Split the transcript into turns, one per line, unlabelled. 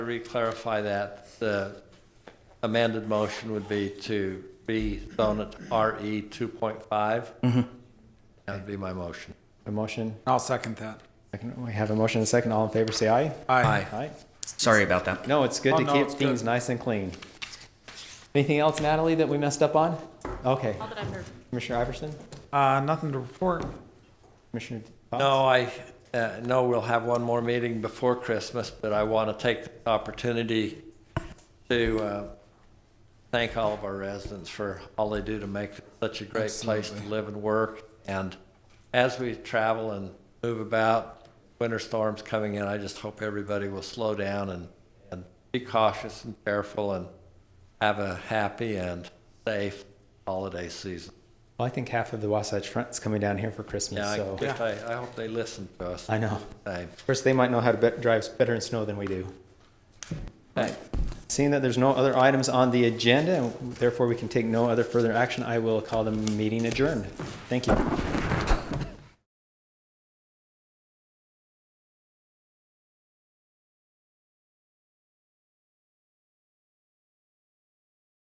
Reclarify that, the amended motion would be E to rezone it to RE 2.5. That would be my motion.
A motion,
I'll second that.
second- we have a motion and a second. All in favor, say aye.
Aye.
Aye.
Sorry about that.
No, it's good
Oh,
to
no,
keep
it's good.
things nice and clean. Anything else, Natalie, that we messed up on? Okay.
All that I've heard.
Commissioner Iverson?
Uh, nothing to report.
Commissioner? Fox?
No, I, uh, no, we'll have one more meeting before Christmas, but I want to take the opportunity to uh, thank all of our residents for all they do to make such a great place to live and work. And as we travel and move about, winter storms coming in, I just hope everybody will slow down and, and be cautious and careful and have a happy and safe holiday season.
Well, I think half of the Wasatch Front's coming down here for Christmas,
Yeah, I
so.
guess I, I hope they listen to us.
I know.
Same.
Of course, they might know how to bet- drive better in snow than we do. Alright. Seeing that there's no other items on the agenda, and therefore we can take no other further action, I will call the meeting adjourned. Thank you.